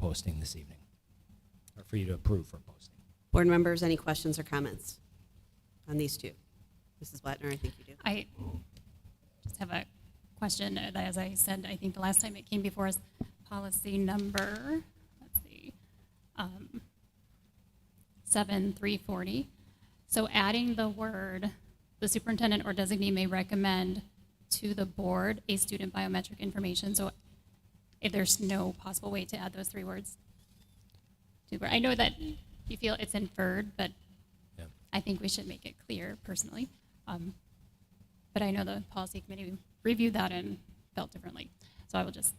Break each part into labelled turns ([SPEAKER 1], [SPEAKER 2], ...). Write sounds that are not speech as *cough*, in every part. [SPEAKER 1] posting this evening, or for you to approve for posting.
[SPEAKER 2] Board members, any questions or comments on these two? Mrs. Blattner, I think you do.
[SPEAKER 3] I just have a question. And As I said, I think the last time it came before us, policy number, let's see, um, 7340. So adding the word, the superintendent or designee may recommend to the board a student biometric information. So if there's no possible way to add those three words. to where- I know that you feel it's inferred, but
[SPEAKER 1] Yeah.
[SPEAKER 3] I think we should make it clear personally. Um, but I know the policy committee reviewed that and felt differently. So I will just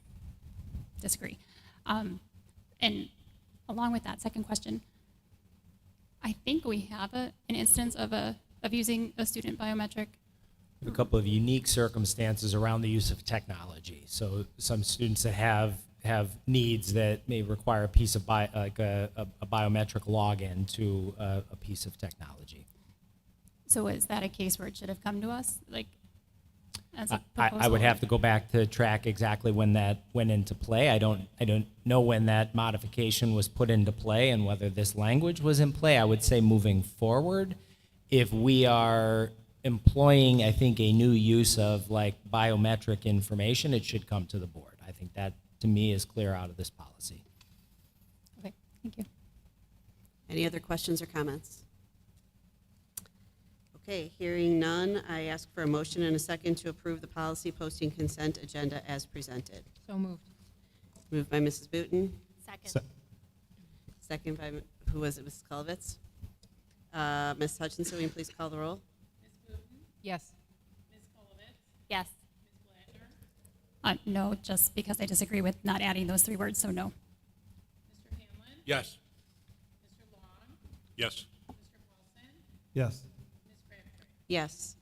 [SPEAKER 3] disagree. Um, and along with that, second question, I think we have a, an instance of a of using a student biometric.
[SPEAKER 1] a couple of unique circumstances around the use of technology. So some students that have have needs that may require a piece of bi- like a, a, a biometric login to a, a piece of technology.
[SPEAKER 3] So is that a case where it should have come to us, like as
[SPEAKER 1] I, I
[SPEAKER 3] a proposal?
[SPEAKER 1] I would have to go back to track exactly when that went into play. I don't I don't know when that modification was put into play and whether this language was in play. I would say moving forward, if we are employing, I think, a new use of like biometric information, it should come to the board. I think that to me is clear out of this policy.
[SPEAKER 3] Okay, thank you.
[SPEAKER 2] Any other questions or comments? Okay, hearing none, I ask for a motion and a second to approve the policy posting consent agenda as presented.
[SPEAKER 4] So moved.
[SPEAKER 2] Moved by Mrs. Booten,
[SPEAKER 1] So-
[SPEAKER 2] second by, who was it, Mrs. Culvitz? Uh, Ms. Hutchinson, will you please call the roll?
[SPEAKER 4] Yes.
[SPEAKER 3] Yes. Uh, no, just because I disagree with not adding those three words, so no.
[SPEAKER 5] Yes. Yes.
[SPEAKER 6] Yes.
[SPEAKER 2] Yes.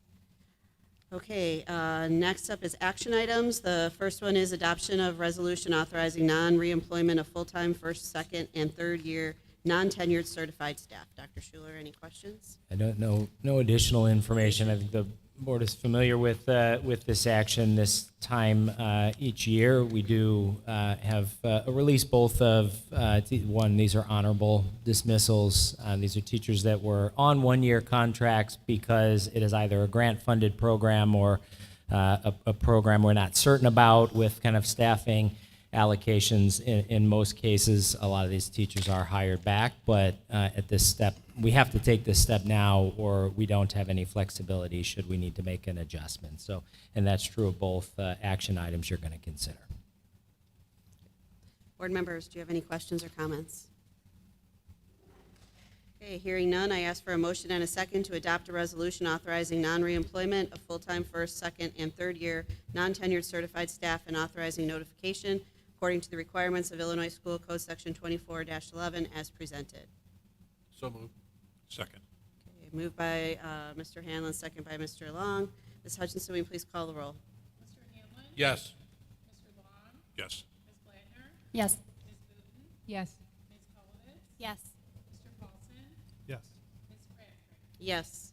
[SPEAKER 2] Okay, uh, next up is action items. The first one is adoption of resolution authorizing non-reemployment of full-time first, second, and third-year non-tenured certified staff. Dr. Schuler, any questions?
[SPEAKER 1] I don't know, no additional information. I think the board is familiar with, uh, with this action this time uh, each year. We do uh, have uh, a release both of, uh, t- one, these are honorable dismissals. Uh, These are teachers that were on one-year contracts because it is either a grant-funded program or uh, a a program we're not certain about with kind of staffing allocations. In, in most cases, a lot of these teachers are hired back, but uh, at this step, we have to take this step now, or we don't have any flexibility should we need to make an adjustment. So, and that's true of both uh, action items you're going to consider.
[SPEAKER 2] Board members, do you have any questions or comments? Okay, hearing none, I ask for a motion and a second to adopt a resolution authorizing non-reemployment of full-time first, second, and third-year non-tenured certified staff and authorizing notification according to the requirements of Illinois School Code Section 24-11 as presented.
[SPEAKER 5] So moved. Second.
[SPEAKER 2] Okay, Moved by uh, Mr. Hanlon, second by Mr. Long. Ms. Hutchinson, will you please call the roll?
[SPEAKER 5] Yes. Yes.
[SPEAKER 3] Yes.
[SPEAKER 4] Yes.
[SPEAKER 3] Yes.
[SPEAKER 6] Yes.
[SPEAKER 2] Yes.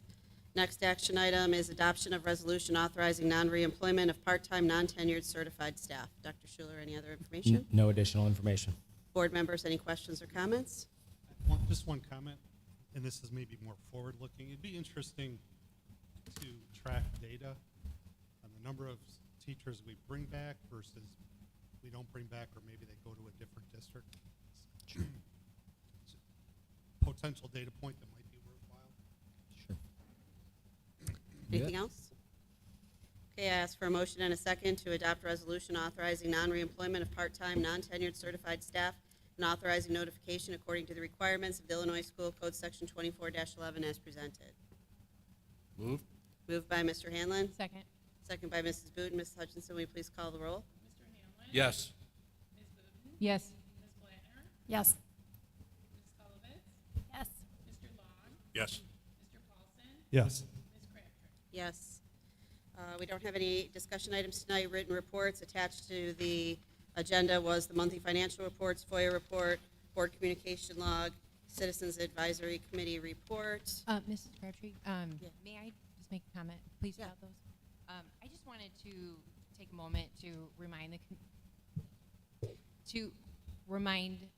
[SPEAKER 2] Next action item is adoption of resolution authorizing non-reemployment of part-time, non-tenured certified staff. Dr. Schuler, any other information?
[SPEAKER 1] N- No additional information.
[SPEAKER 2] Board members, any questions or comments?
[SPEAKER 6] One, just one comment, and this is maybe more forward-looking. It'd be interesting to track data on the number of s- teachers we bring back versus we don't bring back, or maybe they go to a different district. It's a *clears throat* Potential data point that might be worthwhile.
[SPEAKER 1] Sure.
[SPEAKER 2] Anything else? Okay, I ask for a motion and a second to adopt resolution authorizing non-reemployment of part-time, non-tenured certified staff and authorizing notification according to the requirements of the Illinois School Code Section 24-11 as presented.
[SPEAKER 5] Moved.
[SPEAKER 2] Moved by Mr. Hanlon,
[SPEAKER 4] Second.
[SPEAKER 2] second by Mrs. Booten. Mrs. Hutchinson, will you please call the roll?
[SPEAKER 5] Yes.
[SPEAKER 4] Yes.
[SPEAKER 3] Yes. Yes.
[SPEAKER 5] Yes.
[SPEAKER 6] Yes.
[SPEAKER 2] Yes. Uh, We don't have any discussion items tonight, written reports. Attached to the agenda was the monthly financial reports, FOIA report, board communication log, Citizens Advisory Committee report.
[SPEAKER 4] Uh, Mrs. Crabtree, um,
[SPEAKER 2] Yeah.
[SPEAKER 4] may I just make a comment, please,
[SPEAKER 2] Yeah.
[SPEAKER 4] about those? Um, I just wanted to take a moment to remind the, com- to remind